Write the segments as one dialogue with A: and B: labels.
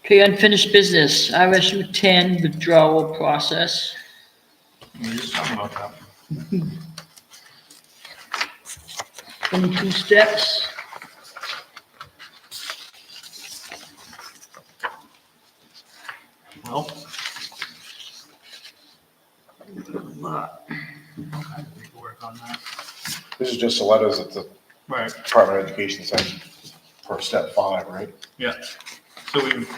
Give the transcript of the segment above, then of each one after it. A: Okay, unfinished business, RSU ten withdrawal process.
B: We were just talking about that.
A: Twenty-two steps.
B: Well. Okay, we can work on that.
C: This is just the letters that the
B: Right,
C: Department of Education sent for step five, right?
B: yeah. So we've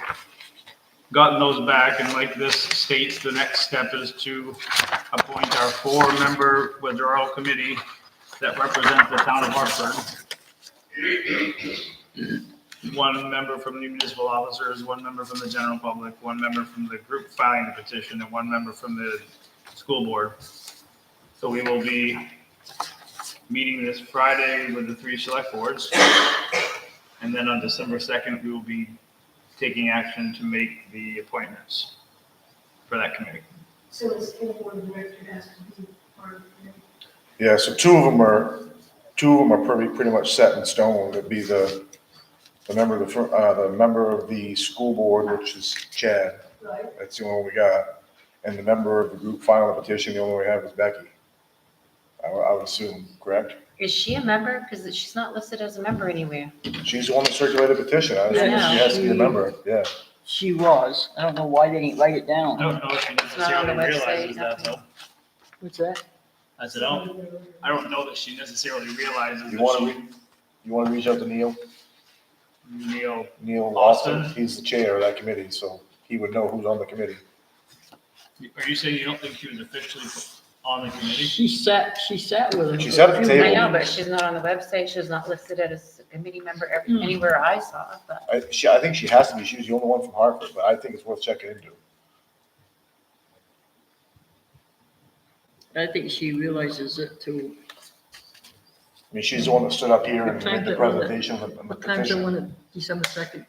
B: gotten those back and like this states, the next step is to appoint our four-member withdrawal committee that represent the town of Hartford. One member from the municipal officers, one member from the general public, one member from the group filing the petition, and one member from the school board. So we will be meeting this Friday with the three select boards. And then on December 2nd, we will be taking action to make the appointments for that committee.
D: So the school board of director has to be part of it.
C: Yeah, so two of them are, two of them are pretty, pretty much set in stone. It'd be the, the member of the, fir- uh, the member of the school board, which is Chad.
D: right?
C: That's the only one we got. And the member of the group filing the petition, the only one we have is Becky. I, would- I would assume, correct?
E: Is she a member? Because she's not listed as a member anywhere.
C: She's the one that circulated the petition. I assume
A: Yeah.
C: she has to be a member, yeah.
A: She was, I don't know why they didn't write it
B: I
A: down.
B: don't know if she
E: not on the
B: necessarily realizes
E: website,
B: that, though.
A: What's that?
B: I said, oh, I don't know that she necessarily realizes
C: You
B: that
C: wanna
B: she,
C: You want to reach out to Neil?
B: Neil,
C: Neil Austin,
B: Austin?
C: he's the chair of that committee, so he would know who's on the committee.
B: are you saying you don't think she was officially on the committee?
A: She sat, she sat with him.
C: She sat at the
E: I
C: table.
E: know, but she's not on the website. She's not listed as a committee member ev-
A: Hmm.
E: anywhere I saw, but
C: I, she, I think she has to be, she was the only one from Hartford, but I think it's worth checking into.
A: I think she realizes it too.
C: I mean, she's the one that stood up here
A: What
C: and
A: time's
C: made the
A: it on the-
C: presentation and and the
A: What time's the one
C: petition.
A: at December second?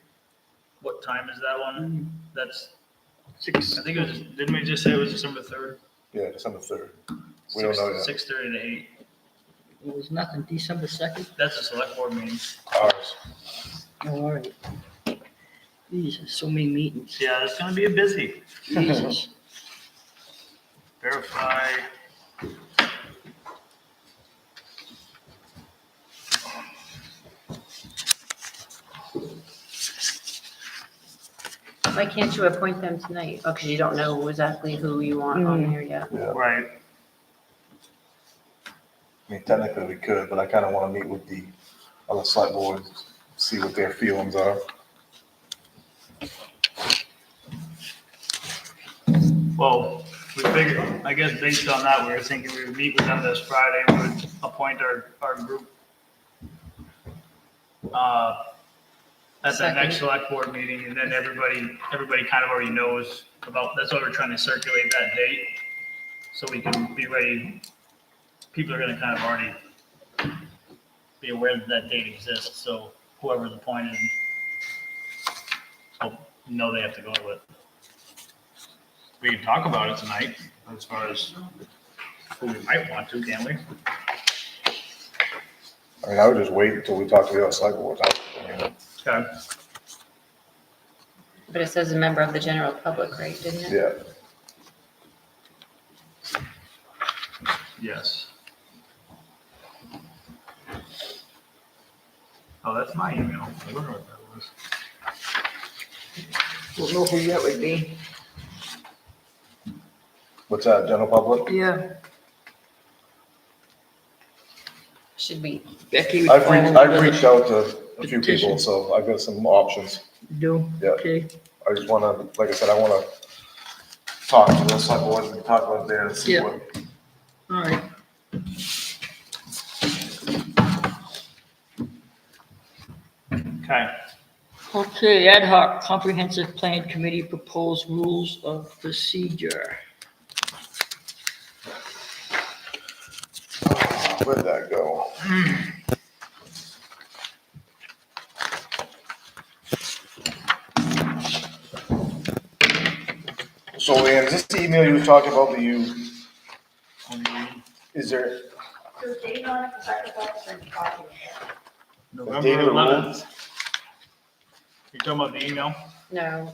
B: What time is that one? That's, I think it was, didn't we just say it was December 3rd?
C: Yeah, December third. We don't know yet.
B: 6:30 to 8.
A: It was nothing, December second? Oh,
B: That's a select board meeting.
C: Ours.
A: All right. Jesus, so many meetings.
B: Yeah, it's gonna be a busy.
A: Jesus.
B: Verify.
E: why can't you appoint them tonight? Oh, because you don't know exactly who you want
A: Hmm.
E: on there yet.
C: Yeah,
B: Right.
C: I mean, technically we could, but I kind of want to meet with the other select boards, see what their feelings are.
B: Well, we figured, I guess based on that, we were thinking we would meet with them this Friday, we would appoint our, our group. uh, At the
E: Second.
B: next select board meeting, and then everybody, everybody kind of already knows about, that's why we're trying to circulate that date. So we can be ready, people are gonna kind of already be aware that that date exists, so whoever's appointed. will know they have to go to it we can talk about it tonight as far as who we might want to, can we?
C: I mean, I would just wait until we talk to the other select boards. I- I mean,
B: Okay.
E: But it says a member of the general public, right? Didn't it?
C: Yeah,
B: Yes. Oh, that's my email. I wonder what that was.
A: Don't know who that would be.
C: what's that, general public?
A: Yeah.
E: Should be.
A: Becky would.
C: I've reached,
A: follow
C: I've
A: the-
C: reached out to a few
A: Petition.
C: people, so I've got some options.
A: Do,
C: Yeah.
A: okay.
C: I just wanna, like I said, I wanna talk to the select board and talk about there and see
A: Yeah.
C: what,
A: All right.
B: Okay,
A: Okay, ad hoc comprehensive plan committee proposed rules of procedure.
C: where'd that go? So Leanne, is this the email you were talking about that you, is there,
D: There's data on it, because I could watch certain documents.
B: November
C: Data
B: 11th. You're talking about the email?
E: No,